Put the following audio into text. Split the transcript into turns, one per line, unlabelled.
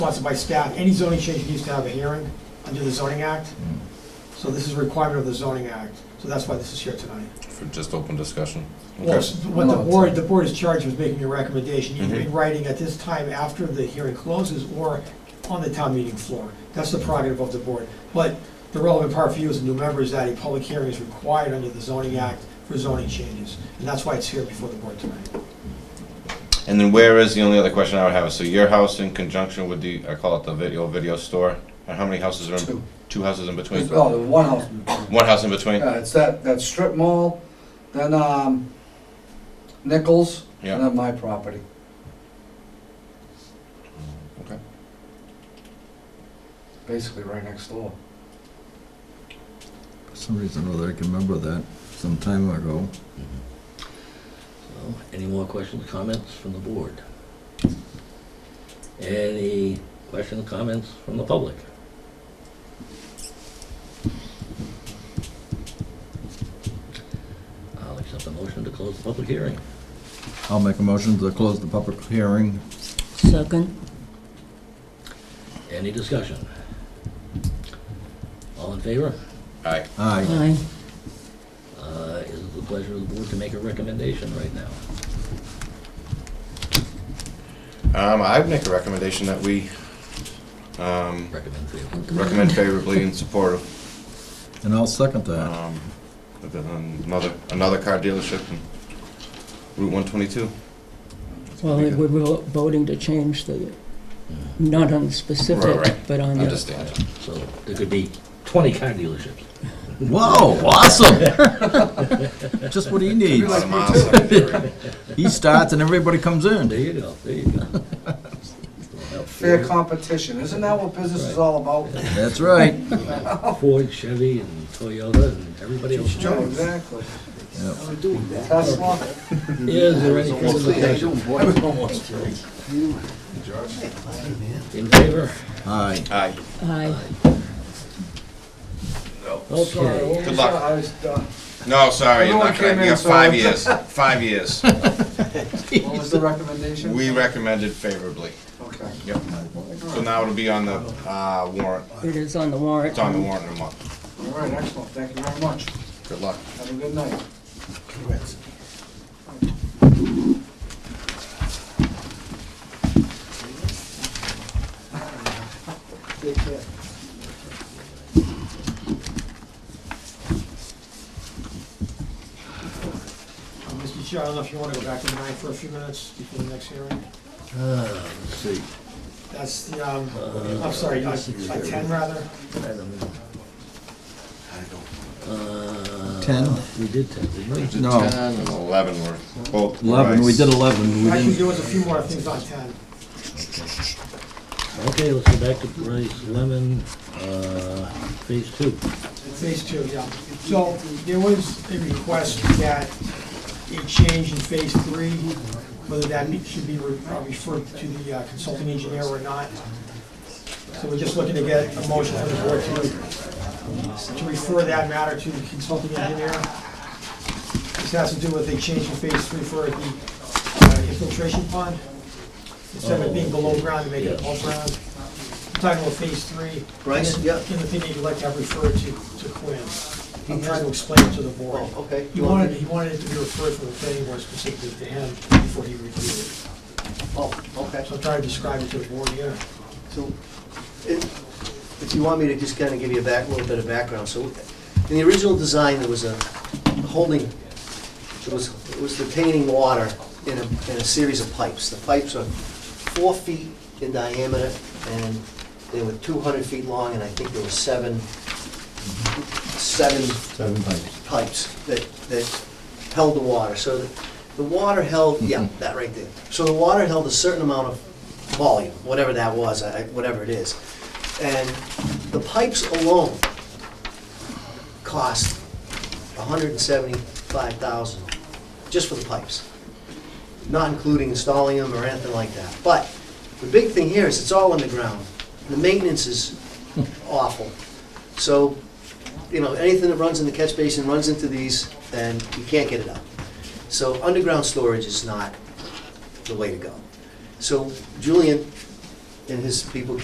sponsored by staff, any zoning change needs to have a hearing under the zoning act. So this is a requirement of the zoning act, so that's why this is here tonight.
For just open discussion?
Well,
Okay.
What the
No, it's-
board, the board is charged with making a recommendation, either
Mhm.
in writing at this time after the hearing closes or on the town meeting floor. That's the prerogative of the board. But the relevant part for you as a new member is that a public hearing is required under the zoning act for zoning changes. And that's why it's here before the board tonight.
And then where is, the only other question I would have is, so your house in conjunction with the, I call it the video, video store? And how many houses are in,
Two.
two houses in between?
There's- Oh, there's one house.
One house in between?
Yeah, it's that, that strip mall, then, um, Nichols, and
Yeah,
then my property.
okay.
Basically right next door.
For some reason or other, I can remember that some time ago.
So, Any more questions, comments from the board? Any questions, comments from the public? I'll accept a motion to close the public hearing.
I'll make a motion to close the public hearing.
Second,
Any discussion? All in favor?
Aye.
Aye.
aye.
Uh, Is it the pleasure of the board to make a recommendation right now?
Um, I'd make a recommendation that we, um,
Recommend favorable.
recommend favorably in support of,
And I'll second that.
um, of the- another, another car dealership in Route one twenty-two.
Well, we we're vo- voting to change the, not on the
Right,
specific,
right.
but on the,
Understand.
Hmm. So there could be 20 car dealerships.
Whoa, awesome! Just what he needs.
Lot of miles on it.
He starts and everybody comes
There
in.
you go, there you go.
Fair competition, isn't that what business is all about?
That's right.
Ford, Chevy, and Toyota, and everybody else.
Yeah, Exactly.
Yep.
Tesla,
Is there any further discussion? In favor?
Aye.
Aye.
aye.
Okay.
Good luck.
I was, uh,
No, sorry, you're
Everyone
not gonna,
came
you
in,
got
so-
five years, five years.
What was the recommendation?
We recommended favorably.
Okay.
Yep. So now it'll be on the uh, warrant,
It is on the warrant.
it's on the warrant in a month.
All right, excellent, thank you very much.
Good luck.
Have a good night.
Uh, Mr. Chair, I don't know if you want to go back to nine for a few minutes before the next hearing?
Uh, Let's see.
That's the, um, I'm sorry, uh, uh, ten rather.
Uh,
Ten?
We did ten, didn't we?
No,
Ten and eleven were both.
eleven, we
rice.
did eleven. We
Actually, there
didn't,
was a few more things on ten.
Okay, let's go back to Bryce Lemon, uh, phase two.
Phase two, yeah. So there was a request that a change in phase three, whether that be- should be re- uh, referred to the uh, consulting engineer or not. So we're just looking to get a motion from the board to, to refer that matter to the consulting engineer. This has to do with a change in phase three for the uh, infiltration pond. Instead of it being below ground, to make it above ground. We're Talking about phase three.
Bryce,
And
yeah.
and the thing that you'd like to have referred to, to Quinn. I'm trying to explain it to the board.
Oh, okay.
He wanted, he wanted it to be referred from the planning board specifically to him before he reviewed it.
Oh, okay.
So I'm trying to describe it to the board here.
So, if if you want me to just kind of give you a back, a little bit of background, so in the original design, there was a holding, it was, it was retaining water in a, in a series of pipes. The pipes are four feet in diameter, and they were two hundred feet long, and I think there were seven, seven
seven pipes.
pipes that, that held the water. So the, the water held, yeah,
Mm-hmm.
that right there. So the water held a certain amount of volume, whatever that was, I- whatever it is. And the pipes alone cost hundred and seventy-five thousand, just for the pipes. Not including installing them or anything like that. But the big thing here is it's all underground. The maintenance is
Hmm.
awful. So you know, anything that runs in the catch basin runs into these, and you can't get it out. So underground storage is not the way to go. So Julian and his people